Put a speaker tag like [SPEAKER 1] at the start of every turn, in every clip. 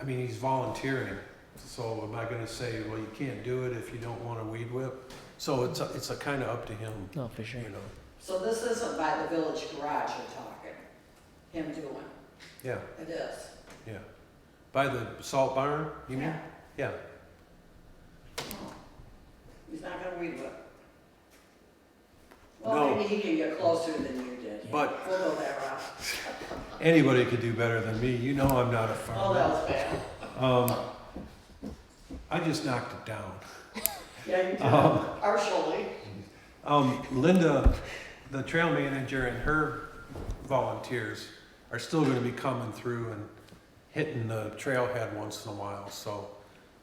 [SPEAKER 1] I mean, he's volunteering, so am I gonna say, well, you can't do it if you don't wanna weed whip? So it's, a- it's a kinda up to him,
[SPEAKER 2] No, for sure.
[SPEAKER 1] you know,
[SPEAKER 3] So this isn't by the village garage you're talking, him doing,
[SPEAKER 1] yeah,
[SPEAKER 3] it is.
[SPEAKER 1] yeah. By the salt barn, you mean? Yeah,
[SPEAKER 3] Yeah. No. Oh. He's not gonna read it. Well,
[SPEAKER 1] No.
[SPEAKER 3] maybe he can get closer than you did.
[SPEAKER 1] But-
[SPEAKER 3] We'll go that route.
[SPEAKER 1] anybody could do better than me, you know I'm not a
[SPEAKER 3] Oh,
[SPEAKER 1] farmer.
[SPEAKER 3] that was bad.
[SPEAKER 1] Um, I just knocked it down.
[SPEAKER 3] Yeah, you did,
[SPEAKER 1] Um,
[SPEAKER 3] partially.
[SPEAKER 1] Um, Linda, the trail manager and her volunteers are still gonna be coming through and hitting the trailhead once in a while, so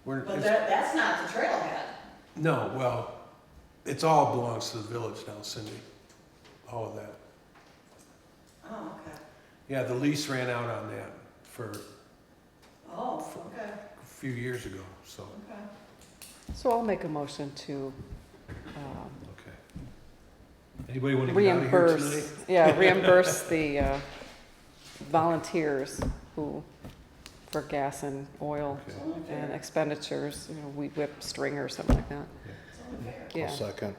[SPEAKER 1] we're,
[SPEAKER 3] But
[SPEAKER 1] it's-
[SPEAKER 3] that, that's not the trailhead.
[SPEAKER 1] no, well, it's all belongs to the village now, Cindy, all of that.
[SPEAKER 3] Oh, okay.
[SPEAKER 1] Yeah, the lease ran out on that for a
[SPEAKER 3] Oh, okay,
[SPEAKER 1] few years ago, so,
[SPEAKER 3] okay.
[SPEAKER 4] So I'll make a motion to um,
[SPEAKER 1] okay. Anybody wanna get out of here
[SPEAKER 4] reimburse,
[SPEAKER 1] tonight?
[SPEAKER 4] yeah, reimburse the uh, volunteers who, for gas and oil
[SPEAKER 1] Okay.
[SPEAKER 3] It's only
[SPEAKER 4] and
[SPEAKER 3] fair.
[SPEAKER 4] expenditures, you know, weed whip, stringer, or something like that.
[SPEAKER 3] It's only fair.
[SPEAKER 4] Yeah,
[SPEAKER 5] second.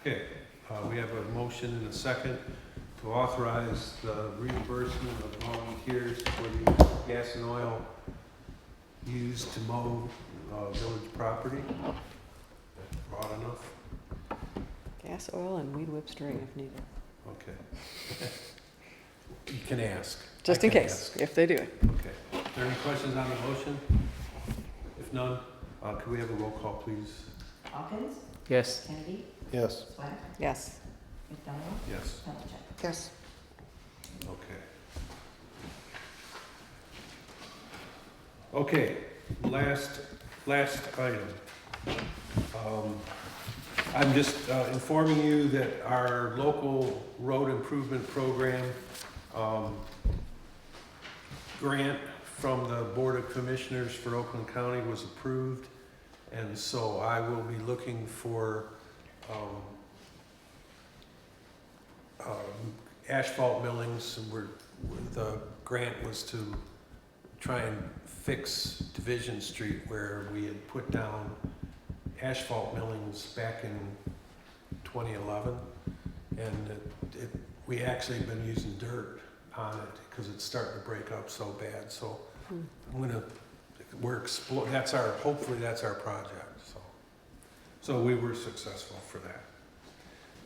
[SPEAKER 1] Okay, uh, we have a motion and a second to authorize the reimbursement of volunteers for the gas and oil used to mow, uh, village property. Broad enough,
[SPEAKER 4] gas, oil, and weed whip, string if needed,
[SPEAKER 1] okay. You can ask.
[SPEAKER 4] just
[SPEAKER 1] I
[SPEAKER 4] in
[SPEAKER 1] can
[SPEAKER 4] case,
[SPEAKER 1] ask.
[SPEAKER 4] if they do it.
[SPEAKER 1] Okay, are there any questions on the motion? If none, uh, could we have a roll call, please?
[SPEAKER 6] Hawkins,
[SPEAKER 2] Yes.
[SPEAKER 6] Kennedy,
[SPEAKER 5] Yes.
[SPEAKER 6] Swack,
[SPEAKER 4] Yes.
[SPEAKER 6] McDonald,
[SPEAKER 1] Yes.
[SPEAKER 6] Pelichak.
[SPEAKER 4] Yes.
[SPEAKER 1] Okay. Okay, last, last item. Um, I'm just uh, informing you that our local road improvement program um, grant from the Board of Commissioners for Oakland County was approved. And so I will be looking for um, um, asphalt millings, and we're, we're- the grant was to try and fix Division Street where we had put down asphalt millings back in 2011. And it, it, we actually have been using dirt on it because it's starting to break up so bad. So
[SPEAKER 4] Hmm.
[SPEAKER 1] I'm gonna, we're exploring, that's our, hopefully that's our project, so. So we were successful for that.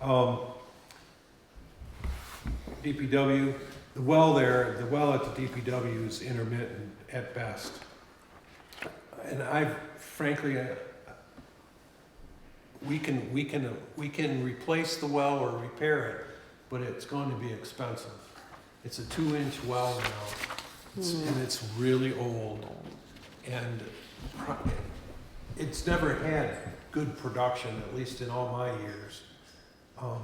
[SPEAKER 1] Um, DPW, the well there, the well at the DPW is intermittent at best. And I frankly, I- we can, we can, we can replace the well or repair it, but it's going to be expensive. It's a two-inch well now, it's-
[SPEAKER 4] Hmm.
[SPEAKER 1] and it's really
[SPEAKER 4] Um,
[SPEAKER 1] old. And pro- it's never had good production, at least in all my years. Um,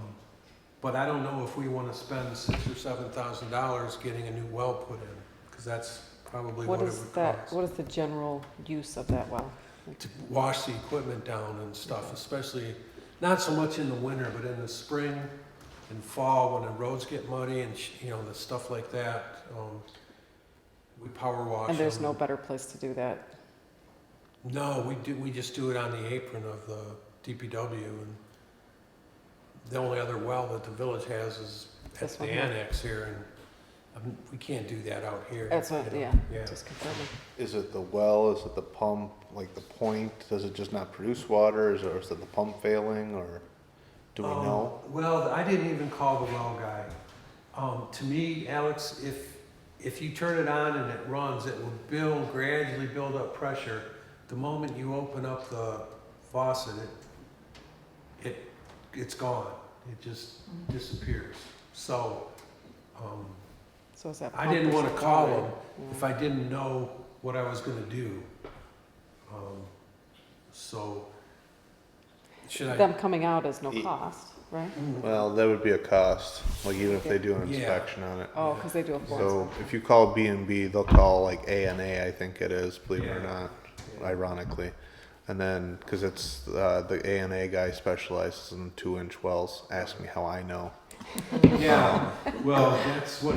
[SPEAKER 1] but I don't know if we wanna spend six or seven thousand dollars getting a new well put in, cause that's probably what
[SPEAKER 4] What
[SPEAKER 1] it
[SPEAKER 4] is
[SPEAKER 1] would
[SPEAKER 4] that,
[SPEAKER 1] cost.
[SPEAKER 4] what is the general use of that well?
[SPEAKER 1] To wash the equipment down and stuff, especially, not so much in the winter, but in the spring and fall, when the roads get muddy and, sh- you know, the stuff like that, um, we power wash.
[SPEAKER 4] And there's
[SPEAKER 1] them.
[SPEAKER 4] no better place to do that
[SPEAKER 1] No, we do, we just do it on the apron of the DPW and the only other well that the village has is at
[SPEAKER 4] This
[SPEAKER 1] the
[SPEAKER 4] one here.
[SPEAKER 1] annex here and um, we can't do that out here.
[SPEAKER 4] That's what-
[SPEAKER 1] you know?
[SPEAKER 4] yeah.
[SPEAKER 1] Yeah,
[SPEAKER 4] Just confirming.
[SPEAKER 5] Is it the well, is it the pump, like the point, does it just not produce water, is, or is it the pump failing, or do we
[SPEAKER 1] Um,
[SPEAKER 5] know?
[SPEAKER 1] Well, I didn't even call the well guy. Um, to me, Alex, if, if you turn it on and it runs, it will build, gradually build up pressure. The moment you open up the faucet, it, it, it's gone. It just disappears. So, um,
[SPEAKER 4] So is that
[SPEAKER 1] I
[SPEAKER 4] pump
[SPEAKER 1] didn't
[SPEAKER 4] or
[SPEAKER 1] wanna
[SPEAKER 4] something?
[SPEAKER 1] call him
[SPEAKER 4] Yeah.
[SPEAKER 1] if I didn't know what I was gonna do. Um, so, should I? Mm.
[SPEAKER 4] Them coming out is no
[SPEAKER 5] Ye-
[SPEAKER 4] cost, right?
[SPEAKER 5] Well, that would be a cost, like even if they do an
[SPEAKER 1] Yeah.
[SPEAKER 5] inspection on it.
[SPEAKER 4] Oh, because they do a forest.
[SPEAKER 5] So if you call B and B, they'll call like A and A, I think it is, believe it or
[SPEAKER 1] Yeah.
[SPEAKER 5] not, ironically. And then, cause it's, uh, the A and A guy specializes in two inch wells, ask me how I know.
[SPEAKER 1] Yeah, well, that's what